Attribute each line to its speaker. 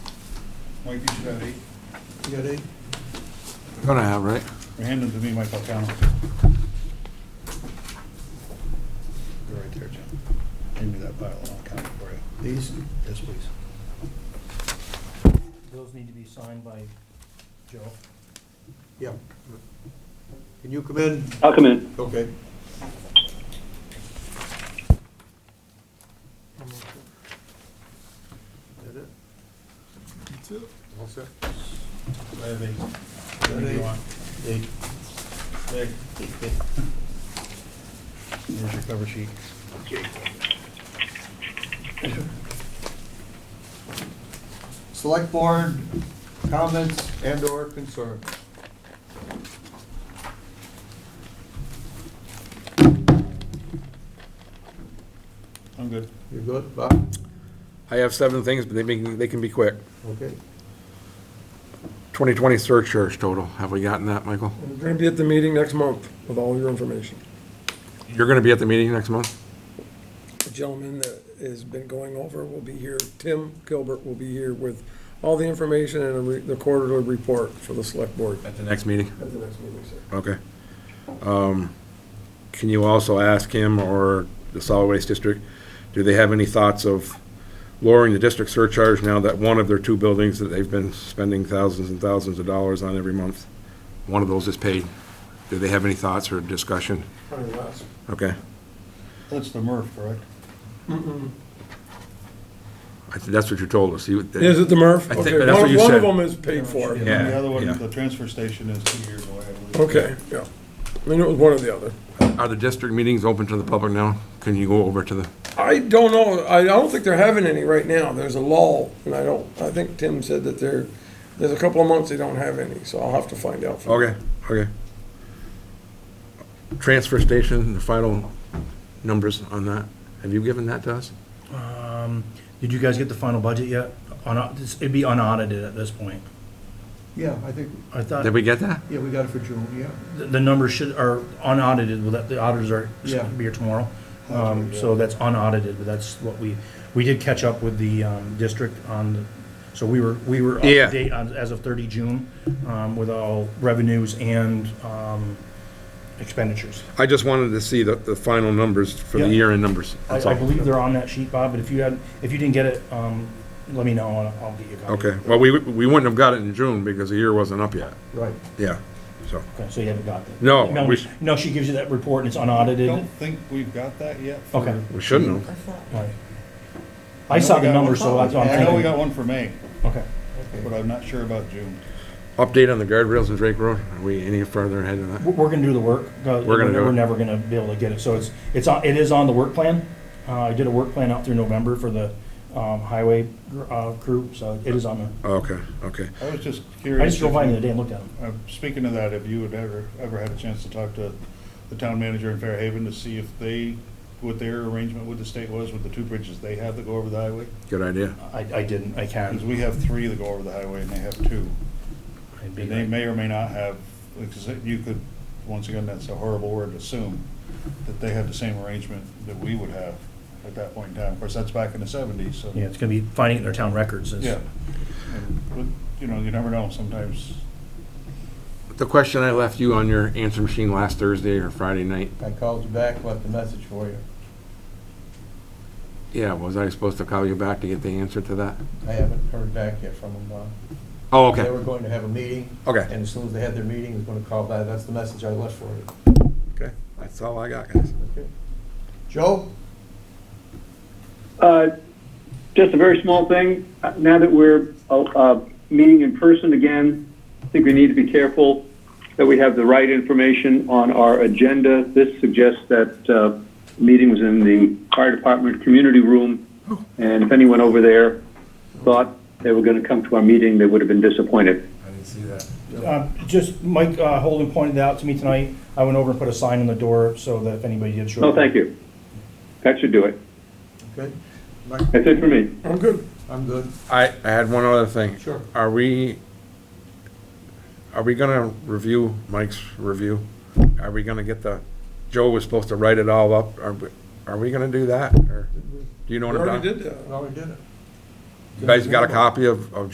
Speaker 1: Mike, you should have eight. You got eight?
Speaker 2: Gonna have, right?
Speaker 1: Or Hand them to me, Mike, I'll count them. They're right there, Jim. Hand me that pile and I'll count it for you. These? Yes, please.
Speaker 3: Those need to be signed by Joe.
Speaker 1: Yeah. Can you come in?
Speaker 4: I'll come in.
Speaker 1: Okay. That it? All set? I have eight. What do you want? Eight. Eight. Here's your cover sheet. Select board comments and/or concerns. I'm good. You're good, Bob?
Speaker 2: I have seven things, but they can, they can be quick.
Speaker 1: Okay.
Speaker 2: 2020 surcharge total, have we gotten that, Michael?
Speaker 5: We're going to be at the meeting next month with all your information.
Speaker 2: You're gonna be at the meeting next month?
Speaker 5: The gentleman that has been going over will be here, Tim Gilbert will be here with all the information and a re- the quarterly report for the select board
Speaker 2: At the next meeting.
Speaker 5: at the next meeting, sir.
Speaker 2: Okay. Um, Can you also ask him or the solid waste district, do they have any thoughts of lowering the district surcharge now that one of their two buildings that they've been spending thousands and thousands of dollars on every month, one of those is paid? Do they have any thoughts or discussion?
Speaker 5: Probably last.
Speaker 2: Okay.
Speaker 1: That's the MRF, correct?
Speaker 2: I think That's what you told us. You-
Speaker 5: Is it the Murph?
Speaker 2: I think
Speaker 5: Okay,
Speaker 2: that's what
Speaker 5: one-
Speaker 2: you
Speaker 5: One
Speaker 2: said.
Speaker 5: of them is paid for.
Speaker 1: And
Speaker 2: Yeah,
Speaker 1: the other
Speaker 2: yeah.
Speaker 1: one, the transfer station is two years away, I believe.
Speaker 5: Okay, yeah. I mean, it was one or the other.
Speaker 2: Are the district meetings open to the public now? Can you go over to the?
Speaker 5: I don't know, I don't think they're having any right now, there's a lull, and I don't, I think Tim said that there, there's a couple of months they don't have any, so I'll have to find out. from-
Speaker 2: Okay, okay. Transfer station, the final numbers on that. Have you given that to us?
Speaker 3: Um, did you guys get the final budget yet? On, this- it'd be unaudited at this point.
Speaker 1: Yeah, I think,
Speaker 3: I thought,
Speaker 2: Did we get that?
Speaker 1: yeah, we got it for June, yeah.
Speaker 3: the the numbers should, are unaudited, well, that, the auditors are,
Speaker 1: Yeah.
Speaker 3: should be here tomorrow. Um, so that's unaudited, but that's what we, we did catch up with the, um, district on, the- so we were, we were up
Speaker 2: Yeah.
Speaker 3: to date on, as of thirty June, um, with all revenues and, um, expenditures.
Speaker 2: I just wanted to see the, the final numbers for the
Speaker 3: Yeah.
Speaker 2: year-end numbers.
Speaker 3: I,
Speaker 2: That's
Speaker 3: I
Speaker 2: all.
Speaker 3: believe they're on that sheet, Bob, but if you had, if you didn't get it, um, let me know, and I'll get you a copy.
Speaker 2: Okay, well, we, we wouldn't have got it in June because the year wasn't up yet.
Speaker 1: Right.
Speaker 2: Yeah, so,
Speaker 3: Okay, so you haven't got that?
Speaker 2: No, we-
Speaker 3: No, she gives you that report and it's
Speaker 1: I
Speaker 3: unaudited?
Speaker 1: don't think we've got that yet. for-
Speaker 3: Okay.
Speaker 2: we shouldn't have.
Speaker 3: All right. I saw
Speaker 1: know we
Speaker 3: the
Speaker 1: got
Speaker 3: number, so
Speaker 1: one-
Speaker 3: that's what I'm
Speaker 1: I know we
Speaker 3: thinking.
Speaker 1: got one for May,
Speaker 3: Okay.
Speaker 1: but I'm not sure about June.
Speaker 2: Update on the guardrails in Drake Road? Are we any further ahead than
Speaker 3: We're,
Speaker 2: that?
Speaker 3: we're gonna do the work. Uh,
Speaker 2: We're gonna do
Speaker 3: We're
Speaker 2: it.
Speaker 3: never gonna be able to get it, so it's, it's, on- it is on the work plan. Uh, I did a work plan out through November for the, um, highway, uh, crew, so it is on the,
Speaker 2: Okay, okay.
Speaker 1: I was just
Speaker 3: I
Speaker 1: curious.
Speaker 3: just drove
Speaker 1: if
Speaker 3: by the
Speaker 1: you-
Speaker 3: other day and looked at them.
Speaker 1: uh, Speaking of that, if you had ever, ever had a chance to talk to the town manager in Fairhaven to see if they, what their arrangement with the state was with the two bridges they have that go over the highway?
Speaker 2: Good idea.
Speaker 3: I, I didn't, I
Speaker 1: Because
Speaker 3: can't.
Speaker 1: we have three that go over the highway and they have two.
Speaker 3: I'd be
Speaker 1: And they
Speaker 3: like-
Speaker 1: may or may not have, because you could, once again, that's a horrible word, assume that they had the same arrangement that we would have at that point in time. Of course, that's back in the seventies, so.
Speaker 3: Yeah, it's gonna be finding it in their town records. is-
Speaker 1: Yeah. And, But, you know, you never know, sometimes.
Speaker 2: The question I left you on your answer machine last Thursday or Friday night,
Speaker 6: I called you back, left a message for you.
Speaker 2: yeah, was I supposed to call you back to get the answer to that?
Speaker 6: I haven't heard back yet from them. uh,
Speaker 2: Oh,
Speaker 6: They
Speaker 2: okay,
Speaker 6: were going to have a meeting,
Speaker 2: okay.
Speaker 6: and as soon as they had their meeting, I was gonna call back. That's the message I left for you.
Speaker 2: Okay, that's all I got, guys.
Speaker 6: Okay. Joe?
Speaker 4: Uh, Just a very small thing. Uh, Now that we're uh, uh, meeting in person again, I think we need to be careful that we have the right information on our agenda. This suggests that uh, meeting was in the fire department community room, and if anyone over there thought they were going to come to our meeting, they would have been disappointed.
Speaker 2: I didn't see that.
Speaker 3: Uh, Just, Mike uh, Holden pointed that out to me tonight. I went over and put a sign on the door so that if anybody did show up.
Speaker 4: No, Oh, thank you. That should do it.
Speaker 6: Okay,
Speaker 4: That's it for me.
Speaker 5: I'm good.
Speaker 6: I'm good.
Speaker 2: I, I had one other thing.
Speaker 6: Sure.
Speaker 2: Are we, are we gonna review Mike's review? Are we gonna get the, Joe was supposed to write it all up, are we, are we gonna do that, or, do you know
Speaker 5: We
Speaker 2: what I'm
Speaker 5: already
Speaker 2: talking?
Speaker 5: did that.
Speaker 6: Well, we did it.
Speaker 2: You guys got a copy of, of